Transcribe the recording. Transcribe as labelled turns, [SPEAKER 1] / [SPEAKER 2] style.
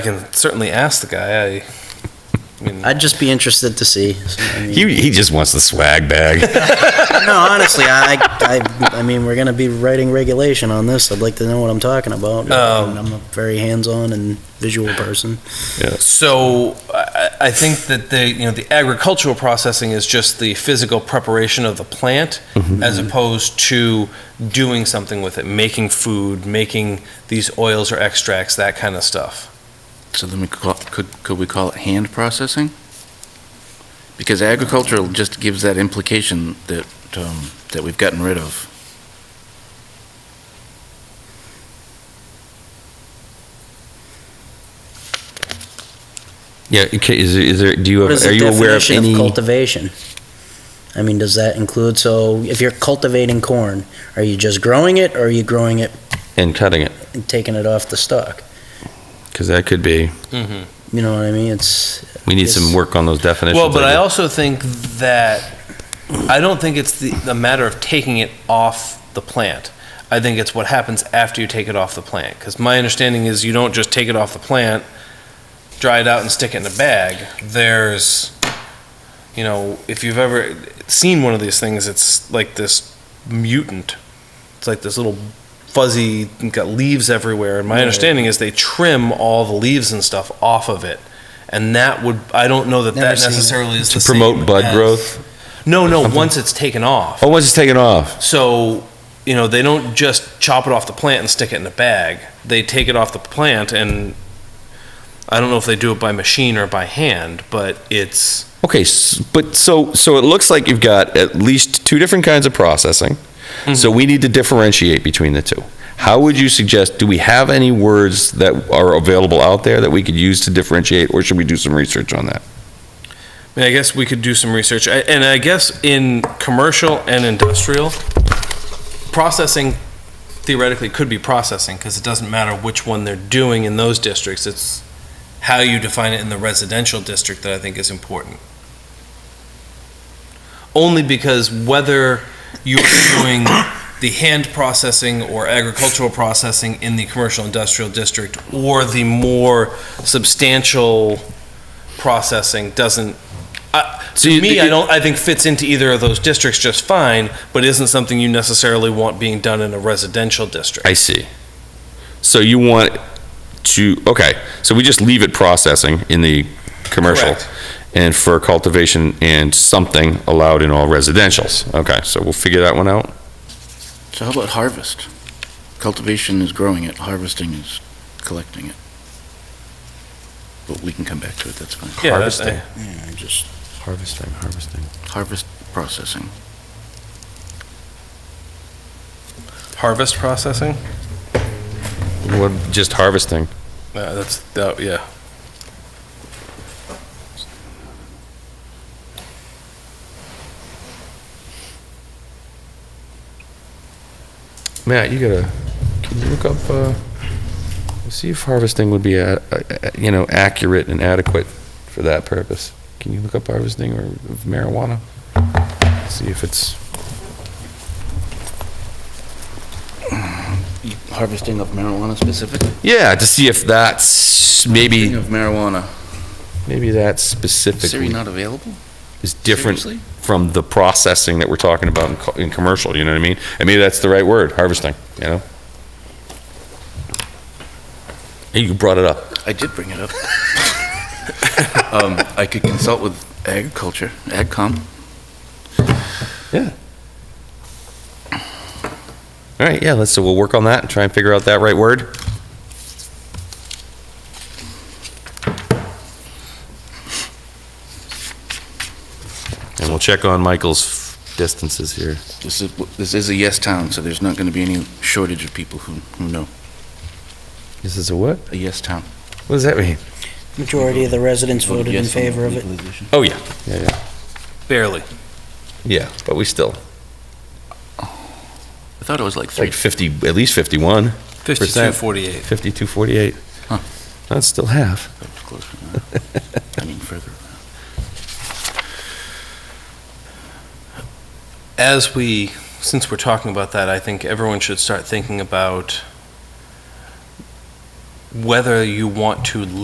[SPEAKER 1] I can certainly ask the guy. I, I mean,
[SPEAKER 2] I'd just be interested to see. I mean,
[SPEAKER 3] He, he just wants the swag bag.
[SPEAKER 2] No, honestly, I, I, I mean, we're gonna be writing regulation on this. I'd like to know what I'm talking about.
[SPEAKER 1] Um,
[SPEAKER 2] And I'm a very hands-on and visual person.
[SPEAKER 1] so I, I I think that the you know the agricultural processing is just the physical preparation of the plant, as opposed to doing something with it, making food, making these oils or extracts, that kind of stuff.
[SPEAKER 4] So then we call, could, could we call it hand processing? Because agricultural just gives that implication that, um, that we've gotten rid of.
[SPEAKER 3] Yeah, okay, is there, is there, do you
[SPEAKER 2] What
[SPEAKER 3] have,
[SPEAKER 2] is
[SPEAKER 3] are
[SPEAKER 2] the
[SPEAKER 3] you aware of
[SPEAKER 2] definition
[SPEAKER 3] any?
[SPEAKER 2] of cultivation? I mean, does that include, so if you're cultivating corn, are you just growing it or are you growing it
[SPEAKER 3] And cutting it,
[SPEAKER 2] and taking it off the stalk?
[SPEAKER 3] because that could be,
[SPEAKER 1] Mm-hmm.
[SPEAKER 2] You know what I mean? It's,
[SPEAKER 3] we need
[SPEAKER 2] Yes.
[SPEAKER 3] some work on those definitions.
[SPEAKER 1] Well, but I
[SPEAKER 3] guess.
[SPEAKER 1] also think that, I don't think it's the, the matter of taking it off the plant. I think it's what happens after you take it off the plant. Because my understanding is you don't just take it off the plant, dry it out and stick it in a bag. There's, you know, if you've ever seen one of these things, it's like this mutant. It's like this little fuzzy, got leaves everywhere. And my understanding is they trim all the leaves and stuff off of it. And that would, I don't know that
[SPEAKER 2] Never
[SPEAKER 1] that
[SPEAKER 2] seen it.
[SPEAKER 1] necessarily is
[SPEAKER 3] To
[SPEAKER 1] the same
[SPEAKER 3] promote bud
[SPEAKER 1] as-
[SPEAKER 3] growth?
[SPEAKER 1] No, no,
[SPEAKER 3] Something?
[SPEAKER 1] once it's taken off.
[SPEAKER 3] Oh, once it's taken off,
[SPEAKER 1] So, you know, they don't just chop it off the plant and stick it in a bag. They take it off the plant and I don't know if they do it by machine or by hand, but it's
[SPEAKER 3] okay, s- but so, so it looks like you've got at least two different kinds of processing.
[SPEAKER 1] Mm-hmm.
[SPEAKER 3] So we need to differentiate between the two. How would you suggest, do we have any words that are available out there that we could use to differentiate, or should we do some research on that?
[SPEAKER 1] I mean, I guess we could do some research. I- And I guess in commercial and industrial, processing theoretically could be processing because it doesn't matter which one they're doing in those districts. It's how you define it in the residential district that I think is important. Only because whether you're doing the hand processing or agricultural processing in the commercial industrial district or the more substantial processing doesn't, I-
[SPEAKER 3] So
[SPEAKER 1] to
[SPEAKER 3] you-
[SPEAKER 1] me, I don't, I think fits into either of those districts just fine, but isn't something you necessarily want being done in a residential district.
[SPEAKER 3] I see. So you want to, okay, so we just leave it processing in the commercial.
[SPEAKER 1] Correct.
[SPEAKER 3] And for cultivation and something allowed in all residentials. Okay, so we'll figure that one out.
[SPEAKER 4] So how about harvest? Cultivation is growing it, harvesting is collecting it. But we can come back to it, that's fine.
[SPEAKER 1] Yeah, that's-
[SPEAKER 3] Harvesting.
[SPEAKER 4] Yeah, I just
[SPEAKER 3] Harvesting, harvesting.
[SPEAKER 4] harvest processing.
[SPEAKER 1] Harvest processing?
[SPEAKER 3] What, just harvesting.
[SPEAKER 1] Uh, that's, that, yeah.
[SPEAKER 3] Matt, you gotta, can you look up, uh, see if harvesting would be, uh, uh, you know, accurate and adequate for that purpose? Can you look up harvesting or marijuana? See if it's.
[SPEAKER 4] Harvesting of marijuana specifically?
[SPEAKER 3] Yeah, to see if that's maybe
[SPEAKER 4] Of marijuana.
[SPEAKER 3] maybe that
[SPEAKER 4] Siri
[SPEAKER 3] specifically
[SPEAKER 4] not available?
[SPEAKER 3] is different
[SPEAKER 4] Seriously?
[SPEAKER 3] from the processing that we're talking about in, co- in commercial. You know what I mean? And maybe that's the right word, harvesting. You know. Hey, you brought it up.
[SPEAKER 4] I did bring it up. um, I could consult with agriculture, AgCom.
[SPEAKER 3] Yeah. All right. Yeah. Let's. So we'll work on that and try and figure out that right word. And we'll check on Michael's distances here.
[SPEAKER 4] This is, this is a yes town, so there's not going to be any shortage of people who, who know.
[SPEAKER 3] This is a what?
[SPEAKER 4] A yes town.
[SPEAKER 3] What does that mean?
[SPEAKER 2] Majority of the residents voted in favor of it.
[SPEAKER 3] Oh, yeah. Yeah, yeah.
[SPEAKER 1] Barely.
[SPEAKER 3] Yeah, but we still,
[SPEAKER 4] I thought it was like three.
[SPEAKER 3] like 50, at least 51,
[SPEAKER 1] 52, 48.
[SPEAKER 3] 52, 48.
[SPEAKER 4] Huh.
[SPEAKER 3] That's still half.
[SPEAKER 4] Close enough. I mean, further.
[SPEAKER 1] As we, since we're talking about that, I think everyone should start thinking about whether you want to